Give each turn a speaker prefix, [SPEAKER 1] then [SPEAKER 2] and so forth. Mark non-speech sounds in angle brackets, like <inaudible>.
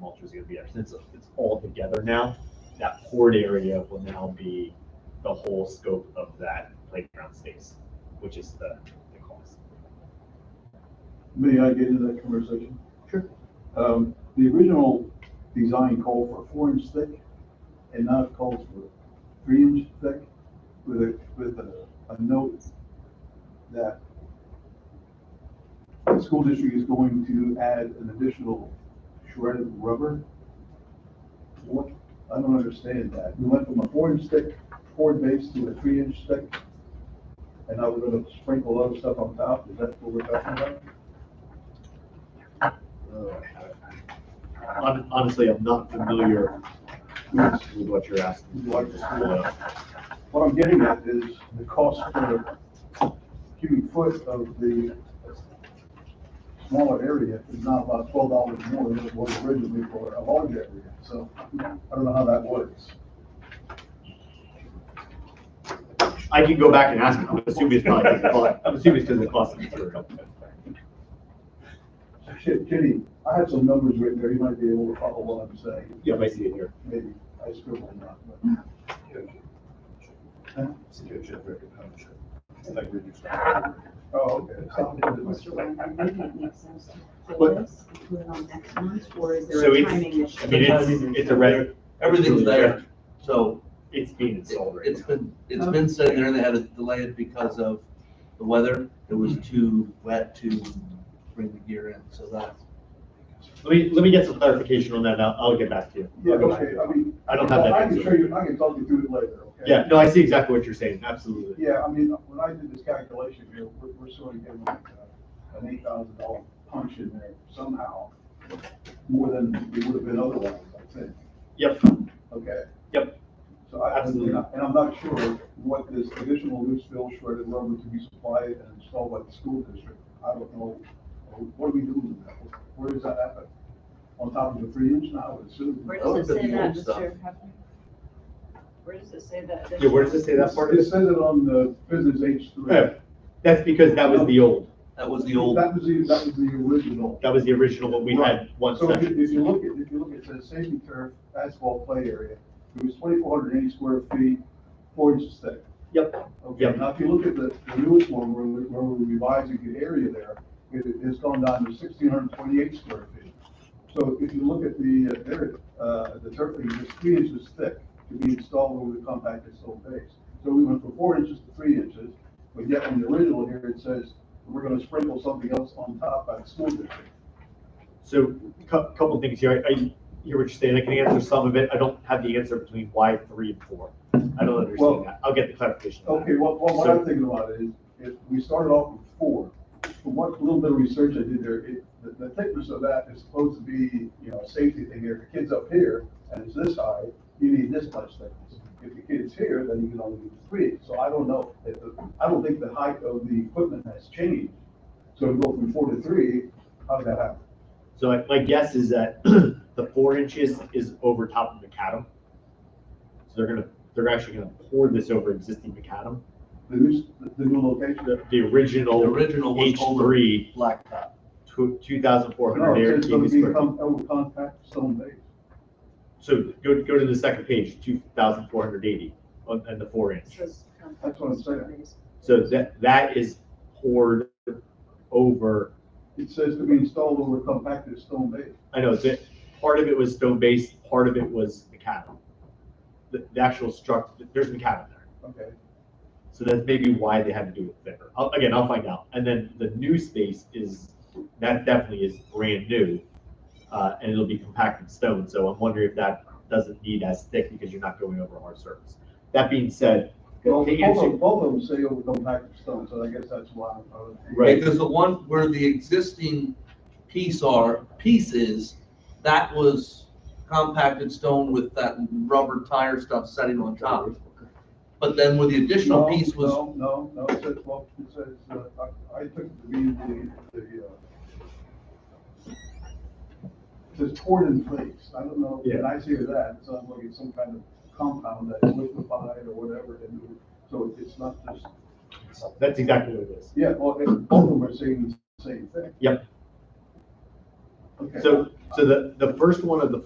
[SPEAKER 1] mulch is gonna be there, since it's all together now, that poured area will now be the whole scope of that playground space, which is the, the cost.
[SPEAKER 2] May I get into that conversation?
[SPEAKER 1] Sure.
[SPEAKER 2] Um, the original design called for four inch thick and now it calls for three inch thick with a, with a, a note that the school district is going to add an additional shredded rubber. What, I don't understand that. We went from a four inch thick board base to a three inch thick. And now we're gonna sprinkle other stuff on top. Is that what we're talking about?
[SPEAKER 1] Hon- Oh, Honestly, I'm not familiar with with what you're asking.
[SPEAKER 2] What the school What I'm getting at is the cost per cubic foot of the smaller area is now about twelve dollars more than it was originally for a large area, so I don't know how that works.
[SPEAKER 1] I can go back and ask, him. I'm assuming it's probably, 'cause of the cost- I'm assuming it's because of the cost of material.
[SPEAKER 2] Shit, Kenny, I have some numbers written there, you might be able to follow what I'm saying,
[SPEAKER 1] Yeah, I see it here.
[SPEAKER 2] maybe I scribbled them out, but. Huh? Oh, okay. Sounds
[SPEAKER 3] Mr.
[SPEAKER 2] good.
[SPEAKER 3] Wayne, do you think it makes sense to put
[SPEAKER 1] But-
[SPEAKER 3] this, and put it on next month, or is
[SPEAKER 1] So
[SPEAKER 3] there a
[SPEAKER 1] it's-
[SPEAKER 3] timing
[SPEAKER 1] I mean,
[SPEAKER 3] issue?
[SPEAKER 1] it's, it's a red.
[SPEAKER 4] Everything's there, so
[SPEAKER 1] It's being installed right
[SPEAKER 4] it's
[SPEAKER 1] now.
[SPEAKER 4] been, it's been sitting there, they had to delay it because of the weather. It
[SPEAKER 1] Mm-hmm.
[SPEAKER 4] was too wet to bring the gear in, so that's.
[SPEAKER 1] Let me, let me get some clarification on that, and I'll, I'll get back to you.
[SPEAKER 2] Yeah, okay, I mean.
[SPEAKER 1] I don't have that
[SPEAKER 2] I can
[SPEAKER 1] answer.
[SPEAKER 2] show you, I can talk you through it later, okay?
[SPEAKER 1] Yeah, no, I see exactly what you're saying, absolutely.
[SPEAKER 2] Yeah, I mean, when I did this calculation here, we're, we're sort of giving like uh, an eight thousand dollar punch in there somehow, more than it would have been otherwise, I think,
[SPEAKER 1] Yep,
[SPEAKER 2] okay?
[SPEAKER 1] Yep.
[SPEAKER 2] So I,
[SPEAKER 1] Absolutely.
[SPEAKER 2] and I'm not sure what this additional loose fill shredded rubber to be supplied and installed by the school district, I don't know. What are we doing with that? Where does that happen? On top of the three inch now, it's soon.
[SPEAKER 5] Where
[SPEAKER 4] Those
[SPEAKER 5] does
[SPEAKER 4] are
[SPEAKER 5] it say
[SPEAKER 4] the
[SPEAKER 5] that,
[SPEAKER 4] old stuff.
[SPEAKER 5] Mr. Hefner? Where does it say that?
[SPEAKER 1] Yeah, where does it say that part
[SPEAKER 2] It says it on the business H three.
[SPEAKER 1] Yeah, that's because that was the old,
[SPEAKER 4] That was the old,
[SPEAKER 2] That was the, that was the original.
[SPEAKER 1] that was the original, what we had one
[SPEAKER 2] So if you-
[SPEAKER 1] section.
[SPEAKER 2] if you look at, if you look at the safety turf asphalt play area, it was twenty-four hundred eighty square feet, four inches thick.
[SPEAKER 1] Yep,
[SPEAKER 2] Okay,
[SPEAKER 1] Yep.
[SPEAKER 2] now if you look at the the newest one, where we- where we're revising the area there, it, it's gone down to sixteen hundred twenty-eight square feet. So if you look at the, uh, area, uh, the turf area, it's three inches thick to be installed over the compacted stone base. So we went from four inches to three inches, but yet in the original here, it says, we're gonna sprinkle something else on top by the school district.
[SPEAKER 1] so cou- couple things here, I, I hear what you're saying, I can answer some of it, I don't have the answer between why three and four. I don't
[SPEAKER 2] Well-
[SPEAKER 1] understand that, I'll get the clarification on
[SPEAKER 2] Okay,
[SPEAKER 1] that.
[SPEAKER 2] well, well, what I'm thinking about is, if we started off with four, from what little bit of research I did there, it, the, the thickness of that is supposed to be, you know, a safety thing here. If the kid's up here and it's this high, you need this much thickness. If the kid's here, then you can only do three. So I don't know, if the, I don't think the height of the equipment has changed. So to go from four to three, how did that happen?
[SPEAKER 1] So I- my guess is that <clears throat> the four inches is over top of macadam. So they're gonna, they're actually gonna pour this over existing macadam.
[SPEAKER 2] The new, s- the- the new location?
[SPEAKER 1] The, the
[SPEAKER 4] the
[SPEAKER 1] original
[SPEAKER 4] original was
[SPEAKER 1] H
[SPEAKER 4] over
[SPEAKER 1] three,
[SPEAKER 4] blacktop.
[SPEAKER 1] two thousand four
[SPEAKER 2] No,
[SPEAKER 1] hundred air
[SPEAKER 2] it's gonna
[SPEAKER 1] cubic square. feet.
[SPEAKER 2] become over contact stone base.
[SPEAKER 1] So go, go to the second page, two thousand four hundred eighty, on, and the four inch.
[SPEAKER 2] That's what I'm saying.
[SPEAKER 1] So that, that is poured over,
[SPEAKER 2] It says to be installed over compacted stone base.
[SPEAKER 1] I know, that, part of it was stone base, part of it was macadam. The, the actual struct, there's macadam there.
[SPEAKER 2] Okay.
[SPEAKER 1] So that's maybe why they had to do it thicker. I'll, again, I'll find out. And then the new space is, that definitely is brand new. Uh, and it'll be compacted stone, so I'm wondering if that doesn't need as thick because you're not going over a hard surface. That being said,
[SPEAKER 2] Well,
[SPEAKER 1] to answer-
[SPEAKER 2] both of, both of them say overcome package stone, so I guess that's why. I would-
[SPEAKER 1] Right.
[SPEAKER 4] Because the one where the existing piece are, pieces, that was compacted stone with that rubber tire stuff setting on top. But then where the additional
[SPEAKER 2] No,
[SPEAKER 4] piece was,
[SPEAKER 2] No, no, no, it says, well, it says, uh, I, I took it to be the, the, uh, it says poured in place. I don't know,
[SPEAKER 1] Yeah.
[SPEAKER 2] when I hear that, so I'm looking at some kind of compound that's liquefied or whatever, and so it's not just,
[SPEAKER 1] that's exactly what it is.
[SPEAKER 2] yeah, well, it- both of them are saying the same thing.
[SPEAKER 1] Yep.
[SPEAKER 6] Okay.
[SPEAKER 7] So, so the, the first one of the